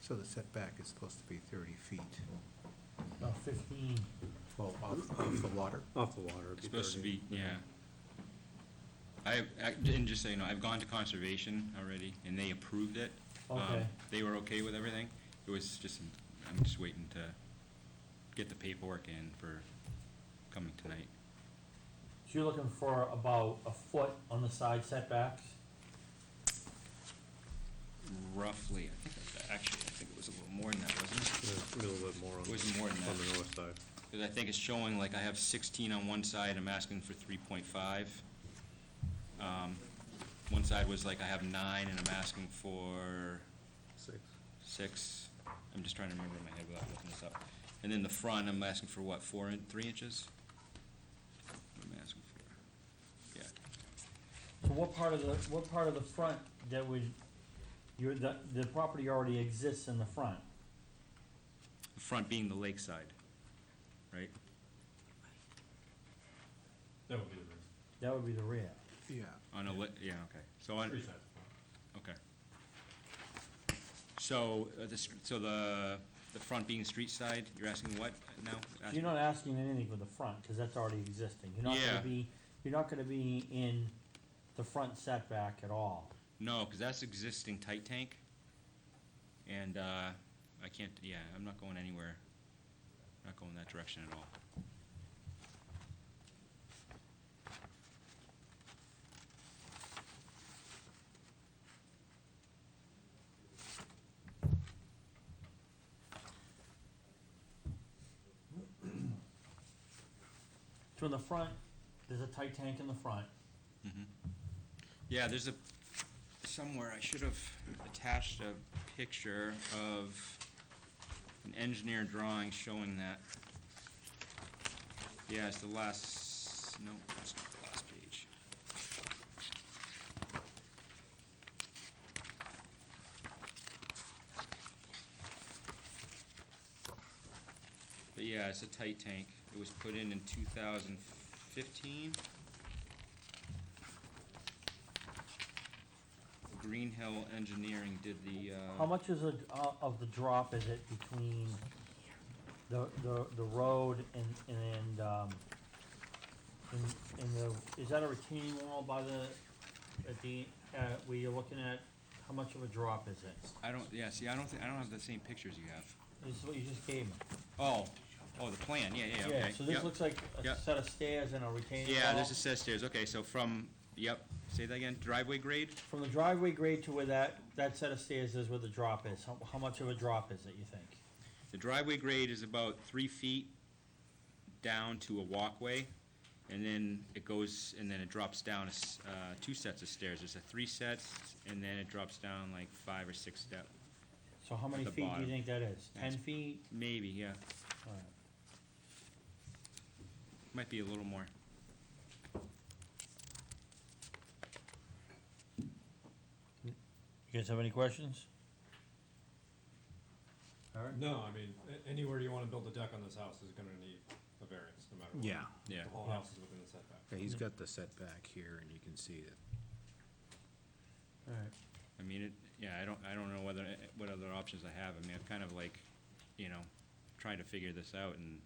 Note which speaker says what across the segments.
Speaker 1: So the setback is supposed to be thirty feet,
Speaker 2: About fifteen.
Speaker 1: well, off, off the water.
Speaker 3: Off the water. it'd
Speaker 4: It's supposed to
Speaker 3: 30.
Speaker 4: be, yeah. I, I- and just so you know, I've gone to conservation already, and they approved it. Um,
Speaker 2: Okay.
Speaker 4: They were okay with everything. It was just, I'm just waiting to get the paperwork in for coming tonight.
Speaker 2: So you're looking for about a foot on the side setbacks?
Speaker 4: Roughly, I think, that's- actually, I think it was a little more than that, wasn't it?
Speaker 3: Yeah, it's A little bit more on.
Speaker 4: It was more than
Speaker 3: On the
Speaker 4: that.
Speaker 3: north side.
Speaker 4: Because I think it's showing, like, I have 16 on one side, I'm asking for 3.5. Um, One side was like, I have nine, and I'm asking for
Speaker 3: Six.
Speaker 4: six. I'm just trying to remember in my head without looking this up. And then the front, I'm asking for what, four and three inches? What am I asking for? Yeah,
Speaker 2: So what part of the, what part of the front that would, your, the, the property already exists in the front?
Speaker 4: the front being the lakeside, right?
Speaker 5: That would be the reason.
Speaker 2: That would be the rear.
Speaker 1: Yeah,
Speaker 4: On a li, Oh, yeah, okay. So on,
Speaker 5: Three sides of front.
Speaker 4: okay. So, uh, the, str- so the, the front being street side, you're asking what now?
Speaker 2: So You're not asking anything for the front, cause that's already existing. You're not
Speaker 4: Yeah.
Speaker 2: gonna be, you're not gonna be in the front setback at all.
Speaker 4: No, because that's existing tight tank. And uh, I can't, yeah, I'm not going anywhere, not going that direction at all.
Speaker 2: So in the front, there's a tight tank in the front.
Speaker 4: Yeah, there's a, somewhere, I should have attached a picture of an engineer drawing showing that. Yeah, it's the last, no, that's not the last page. But yeah, it's a tight tank. It was put in in 2015. Green Hill Engineering did the, uh...
Speaker 2: How much is a, uh, of the drop is it between the, the, the road and, and, um, and, and the, is that a retaining wall by the, at the, uh, where you're looking at, how much of a drop is it?
Speaker 4: I don't, yeah, see, I don't, thi- I don't have the same pictures you have.
Speaker 2: This is what you just gave me.
Speaker 4: Oh, oh, the plan, yeah, yeah, yeah, okay.
Speaker 2: So this
Speaker 4: yep.
Speaker 2: looks like a
Speaker 4: Yep.
Speaker 2: set of stairs and a retaining wall.
Speaker 4: Yeah, this is says stairs, okay, so from, yep, say that again, driveway grade?
Speaker 2: From the driveway grade to where that, that set of stairs is where the drop is, how, how much of a drop is it, you think?
Speaker 4: The driveway grade is about three feet down to a walkway, and then it goes, and then it drops down, a s- uh, two sets of stairs. There's a three sets, and then it drops down like five or six step,
Speaker 2: So how many
Speaker 4: the
Speaker 2: feet do you
Speaker 4: bottom.
Speaker 2: think that is? Ten
Speaker 4: That's-
Speaker 2: feet?
Speaker 4: maybe, yeah,
Speaker 2: All right.
Speaker 4: might be a little more.
Speaker 2: You guys have any questions?
Speaker 5: No, I mean, a- anywhere you wanna build a deck on this house is gonna need a variance, no matter what.
Speaker 1: yeah,
Speaker 4: Yeah.
Speaker 5: The whole
Speaker 2: Yeah.
Speaker 5: house is within the setback.
Speaker 1: yeah, he's got the setback here, and you can see it.
Speaker 2: Alright.
Speaker 4: I mean, it, yeah, I don't, I don't know whether, what other options I have. I mean, I've kind of like, you know, trying to figure this out and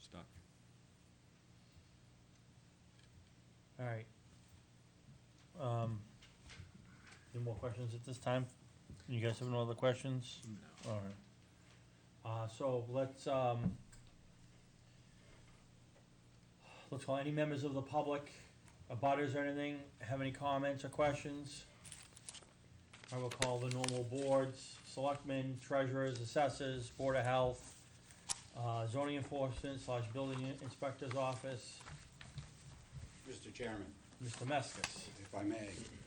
Speaker 4: stuck.
Speaker 2: Alright. Um, any more questions at this time? You guys have no other questions? No. Alright. Uh, so let's, um, let's call any members of the public, abutters or anything, have any comments or questions? I will call the normal boards, selectmen, treasurers, assessors, board of health, uh, zoning enforcement slash building inspector's office,
Speaker 6: Mr. Chairman,
Speaker 2: Mr. Meskis.
Speaker 6: if I may,